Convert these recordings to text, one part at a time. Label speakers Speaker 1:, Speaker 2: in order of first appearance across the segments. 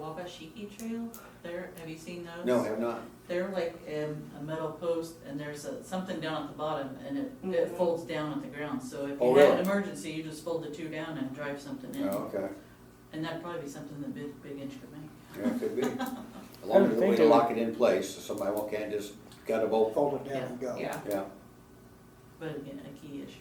Speaker 1: Wabashiki Trail there, have you seen those?
Speaker 2: No, I have not.
Speaker 1: They're like um, a metal post and there's a- something down at the bottom and it, it
Speaker 3: Mhm.
Speaker 1: folds down at the ground. So if
Speaker 2: Oh,
Speaker 1: you had an
Speaker 2: really?
Speaker 1: emergency, you just fold the two down and drive something in.
Speaker 2: Oh, okay.
Speaker 1: And that'd probably be something that Big, Big Inch could make.
Speaker 2: Yeah, it could be. As long as the way to lock it in place, so somebody won't can't just cut a bolt.
Speaker 4: fold it down and go.
Speaker 3: Yeah.
Speaker 2: Yeah.
Speaker 1: But again, a key issue.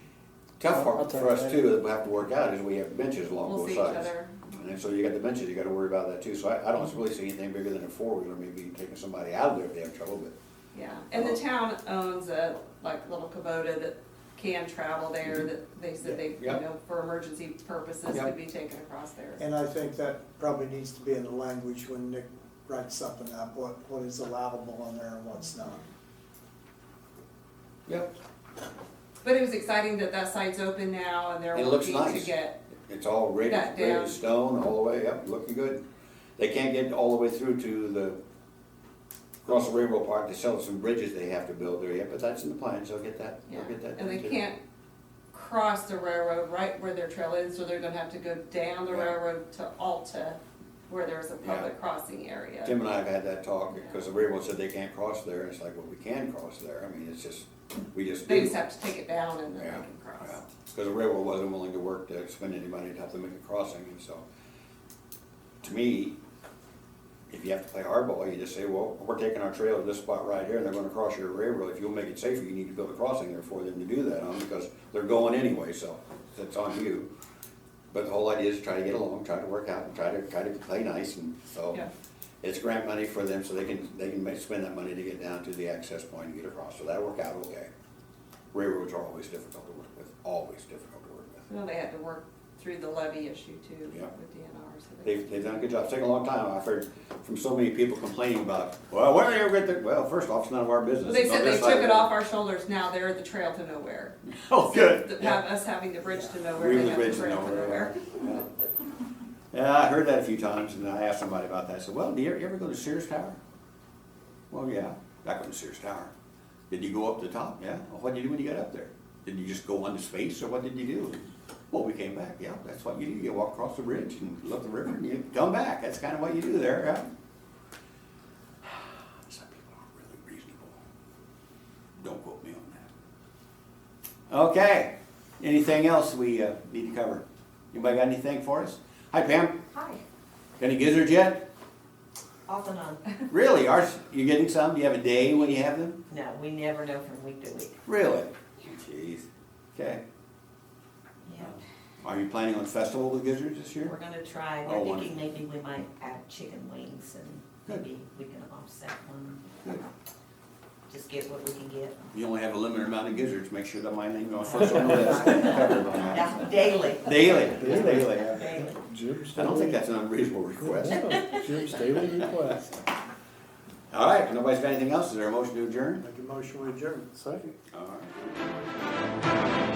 Speaker 2: Tough
Speaker 4: I'll
Speaker 2: part
Speaker 4: tell
Speaker 2: for
Speaker 4: you
Speaker 2: us
Speaker 4: later.
Speaker 2: too, that we have to work out is we have benches along
Speaker 3: We'll
Speaker 2: both
Speaker 3: see each
Speaker 2: sides.
Speaker 3: other.
Speaker 2: And then, so you got the benches, you gotta worry about that too. So I, I don't really see anything bigger than a four-wheeler, maybe taking somebody out of there if they have trouble, but uh,
Speaker 3: Yeah, and the town owns a, like, little Kubota that can travel there, that they said they, you
Speaker 2: Mm-hmm. Yeah.
Speaker 3: know, for emergency purposes
Speaker 2: Yeah.
Speaker 3: could be taken across there.
Speaker 4: And I think that probably needs to be in the language when Nick writes something up, what, what is allowable in there and what's not.
Speaker 2: Yep.
Speaker 3: But it was exciting that that site's open now and they're
Speaker 2: It looks
Speaker 3: working to
Speaker 2: nice.
Speaker 3: get,
Speaker 2: It's all ready,
Speaker 3: That
Speaker 2: ready
Speaker 3: down.
Speaker 2: to stone all the way up, looking good. They can't get all the way through to the Russell Railroad Park. They sell some bridges they have to build there yet, but that's in the plans. They'll get that,
Speaker 3: yeah,
Speaker 2: they'll get that.
Speaker 3: and they
Speaker 2: done, too.
Speaker 3: can't cross the railroad right where their trail is, so they're gonna have to go down the
Speaker 2: Yeah.
Speaker 3: railroad to Alta, where there's a
Speaker 2: Yeah.
Speaker 3: public crossing area.
Speaker 2: Tim and I have had that talk, because the railroad said they can't cross there, and it's like, well, we can cross there, I mean, it's just, we just do.
Speaker 3: They just have to take it down and then they
Speaker 2: Yeah,
Speaker 3: can cross.
Speaker 2: because the railroad wasn't willing to work to spend any money to help them make a crossing, and so, to me, if you have to play hardball, you just say, well, we're taking our trail to this spot right here, and they're gonna cross your railroad, if you'll make it safer, you need to build a crossing there for them to do that on, because they're going anyway, so, that's on you. But the whole idea is try to get along, try to work out, and try to, try to play nice, and so,
Speaker 3: Yeah.
Speaker 2: it's grant money for them, so they can, they can make, spend that money to get down to the access point and get across, so that'll work out okay. Railroads are always difficult to work with, always difficult to work with.
Speaker 3: Well, they had to work through the levy issue too
Speaker 2: Yeah.
Speaker 3: with DNR, so they.
Speaker 2: They've, they've done a good job, it's taken a long time, I've heard from so many people complaining about, well, where are you going to, well, first off, it's none of our business.
Speaker 3: Well, They
Speaker 2: It's on
Speaker 3: said they
Speaker 2: this side
Speaker 3: took
Speaker 2: of
Speaker 3: it
Speaker 2: the-
Speaker 3: off our shoulders, now they're the trail to nowhere.
Speaker 2: Oh, good,
Speaker 3: Th-
Speaker 2: yeah.
Speaker 3: Have us having the bridge to nowhere,
Speaker 2: We
Speaker 3: they
Speaker 2: was
Speaker 3: have the
Speaker 2: raised in
Speaker 3: trail to
Speaker 2: nowhere.
Speaker 3: nowhere.
Speaker 2: yeah. Yeah, I heard that a few times, and I asked somebody about that, I said, well, do you ever go to Sears Tower? Well, yeah, I go to Sears Tower. Did you go up the top? Yeah. Well, what did you do when you got up there? Did you just go into space, or what did you do? Well, we came back, yeah, that's what you do, you walk across the bridge and look the river, and you come back, that's kind of what you do there, yeah. Some people are really reasonable. Don't quote me on that. Okay, anything else we uh, need to cover? Anybody got anything for us? Hi Pam,
Speaker 5: Hi,
Speaker 2: got any gizzards yet?
Speaker 5: off and on.
Speaker 2: Really, are you getting some? Do you have a day when you have them?
Speaker 5: No, we never know from week to week.
Speaker 2: Really? Jeez. Okay.
Speaker 5: Yeah,
Speaker 2: Are you planning on festival with gizzards this
Speaker 5: we're
Speaker 2: year?
Speaker 5: gonna try,
Speaker 2: Oh,
Speaker 5: we're thinking maybe we might add chicken wings and
Speaker 2: Good.
Speaker 5: maybe we can offset one.
Speaker 2: Good.
Speaker 5: Just get what we can get.
Speaker 2: You only have a limited amount of gizzards. Make sure that my name is first on the list. Covered by that.
Speaker 5: That's daily,
Speaker 2: Daily, it's daily. I
Speaker 5: daily.
Speaker 6: Jim's
Speaker 2: don't think
Speaker 6: daily-
Speaker 2: that's an unreasonable request.
Speaker 6: Yeah, Jim's daily request.
Speaker 2: All right, if nobody's got anything else, is there a motion to adjourn?
Speaker 4: Make a motion, we adjourn.
Speaker 6: Second.
Speaker 2: All right.